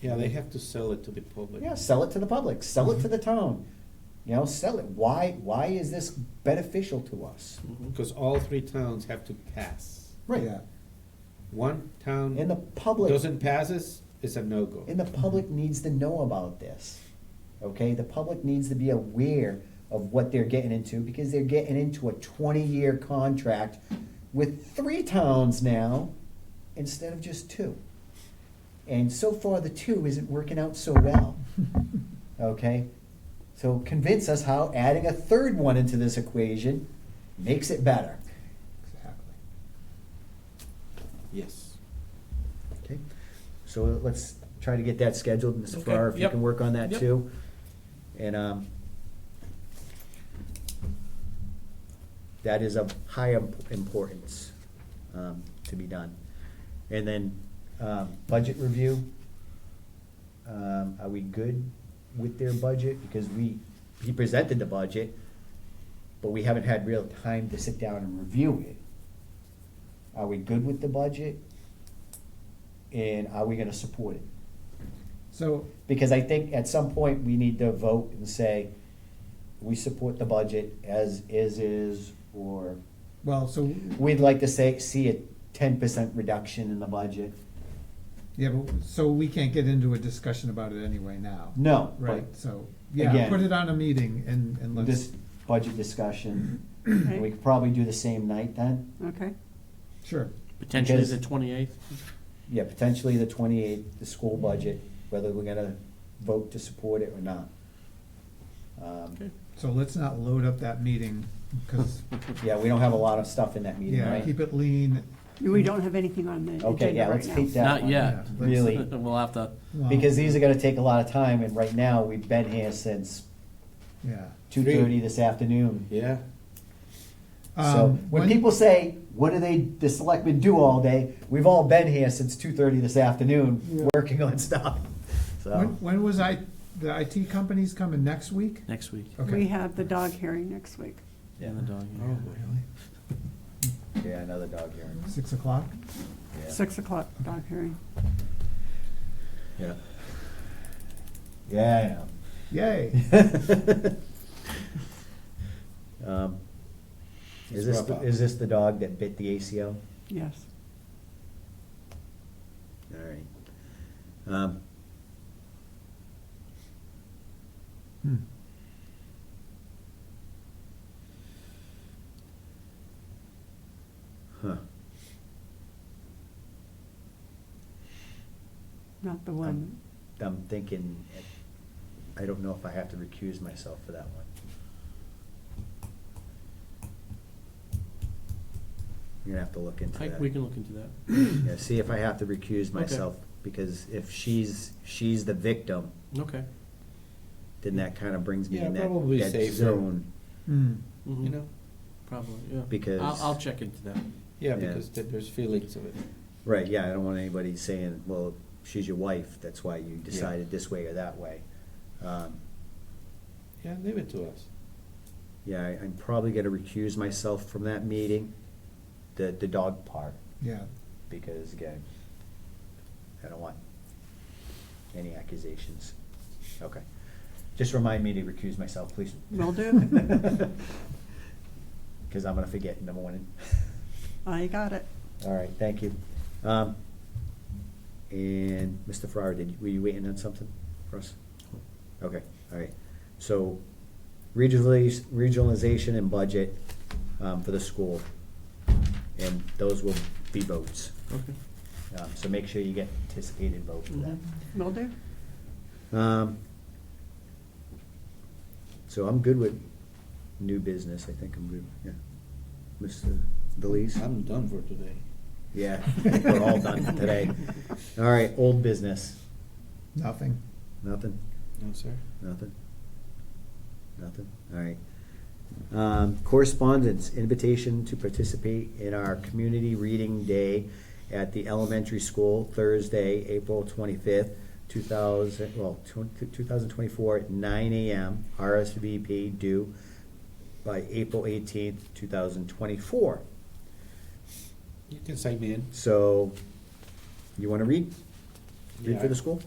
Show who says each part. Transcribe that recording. Speaker 1: Yeah, they have to sell it to the public.
Speaker 2: Yeah, sell it to the public, sell it to the town, you know, sell it. Why, why is this beneficial to us?
Speaker 1: Because all three towns have to pass.
Speaker 2: Right,
Speaker 3: Yeah.
Speaker 1: One town
Speaker 2: and the public.
Speaker 1: doesn't passes, it's a no-go.
Speaker 2: And the public needs to know about this, okay? The public needs to be aware of what they're getting into because they're getting into a twenty-year contract with three towns now instead of just two. And so far, the two isn't working out so well, okay? So convince us how adding a third one into this equation makes it better.
Speaker 3: Exactly.
Speaker 1: Yes.
Speaker 2: Okay, so let's try to get that scheduled, Mr. Farrar, if
Speaker 4: Okay,
Speaker 2: you
Speaker 4: yep,
Speaker 2: can work on that
Speaker 4: yep.
Speaker 2: too. And, um, that is of high imp- importance, um, to be done. And then, um, budget review. Um, are we good with their budget? Because we, he presented the budget, but we haven't had real time to sit down and review it. Are we good with the budget? And are we gonna support it?
Speaker 3: So,
Speaker 2: Because I think at some point, we need to vote and say, we support the budget as is is, or
Speaker 3: well, so,
Speaker 2: we'd like to say, see a ten percent reduction in the budget.
Speaker 3: yeah, but, so we can't get into a discussion about it anyway now.
Speaker 2: No,
Speaker 3: Right,
Speaker 2: but
Speaker 3: so, yeah,
Speaker 2: Again.
Speaker 3: put it on a meeting and, and let's,
Speaker 2: this budget discussion,
Speaker 5: Okay.
Speaker 2: we could probably do the same night then.
Speaker 5: Okay,
Speaker 3: sure,
Speaker 4: Potentially
Speaker 2: Because-
Speaker 4: the twenty-eighth.
Speaker 2: Yeah, potentially the twenty-eighth, the school budget, whether we're gonna vote to support it or not. Um,
Speaker 4: Okay.
Speaker 3: so let's not load up that meeting, because,
Speaker 2: Yeah, we don't have a lot of stuff in that meeting,
Speaker 3: yeah,
Speaker 2: right?
Speaker 3: keep it lean.
Speaker 5: we don't have anything on the
Speaker 2: Okay, yeah,
Speaker 5: agenda right
Speaker 2: let's keep
Speaker 5: now.
Speaker 2: that
Speaker 4: Not
Speaker 2: one.
Speaker 4: yet.
Speaker 3: Yeah.
Speaker 2: Really.
Speaker 4: We'll have to,
Speaker 3: Well,
Speaker 2: Because these are gonna take a lot of time, and right now, we've been here since
Speaker 3: Yeah.
Speaker 2: two thirty this afternoon.
Speaker 1: Yeah,
Speaker 2: So,
Speaker 3: Um,
Speaker 2: when people say, what do they, the selectmen do all day, we've all been here since two thirty this afternoon, working on stuff,
Speaker 3: When,
Speaker 2: so.
Speaker 3: when was I, the IT company's coming next week?
Speaker 4: next week.
Speaker 5: We
Speaker 3: Okay,
Speaker 5: have the dog hearing next week.
Speaker 4: And the dog.
Speaker 1: oh, really?
Speaker 2: Yeah, another dog hearing,
Speaker 3: six o'clock?
Speaker 2: yeah,
Speaker 5: Six o'clock dog hearing.
Speaker 2: yeah. Yeah, I know.
Speaker 3: Yay,
Speaker 2: Um, Is
Speaker 1: Let's
Speaker 2: this,
Speaker 1: wrap
Speaker 2: the-
Speaker 1: up.
Speaker 2: is this the dog that bit the ACO?
Speaker 5: Yes.
Speaker 2: All right. Um,
Speaker 3: Hmm.
Speaker 2: huh,
Speaker 5: Not the one.
Speaker 2: I'm thinking, I don't know if I have to recuse myself for that one. You're gonna have to look into
Speaker 4: I,
Speaker 2: that.
Speaker 4: we can look into that.
Speaker 2: Yeah, see if I have to recuse myself, because if she's, she's the victim,
Speaker 4: Okay.
Speaker 2: then that kind of brings me
Speaker 1: Yeah,
Speaker 2: in that,
Speaker 1: probably
Speaker 2: that
Speaker 1: safer.
Speaker 2: zone.
Speaker 3: Hmm.
Speaker 4: Mhm.
Speaker 1: You know,
Speaker 4: Probably, yeah.
Speaker 2: Because-
Speaker 4: I'll, I'll check into that.
Speaker 1: yeah,
Speaker 2: Yeah.
Speaker 1: because there- there's feelings of it.
Speaker 2: Right, yeah, I don't want anybody saying, well, she's your wife, that's why you decided this way or that way. Um,
Speaker 1: Yeah, leave it to us.
Speaker 2: Yeah, I- I'm probably gonna recuse myself from that meeting, the, the dog part,
Speaker 3: yeah,
Speaker 2: because again, I don't want any accusations. Okay. Just remind me to recuse myself, please.
Speaker 5: Will do.
Speaker 2: Cause I'm gonna forget in the morning.
Speaker 5: I got it.
Speaker 2: All right, thank you. Um, And Mr. Farrar, did, were you waiting on something for us? Okay, all right. So regionalis- regionalization and budget um, for the school. And those will be votes.
Speaker 4: Okay. Mm-hmm.
Speaker 2: Um, So make sure you get anticipated vote for that.
Speaker 5: Will do.
Speaker 2: Um, So I'm good with new business. I think I'm good, yeah. Mr. Belize?
Speaker 1: I'm done for today.
Speaker 2: Yeah, I think we're all done today. All right, old business.
Speaker 3: nothing.
Speaker 2: Nothing,
Speaker 1: No, sir?
Speaker 2: nothing, nothing. All right. Um, correspondence, invitation to participate in our community reading day at the elementary school Thursday, April twenty-fifth, two thousand, well, two thousand twenty-four, at nine AM, RSVP due by April eighteenth, two thousand twenty-four.
Speaker 1: You can sign me in.
Speaker 2: So, you wanna read? Read
Speaker 1: Yeah.
Speaker 2: for the school?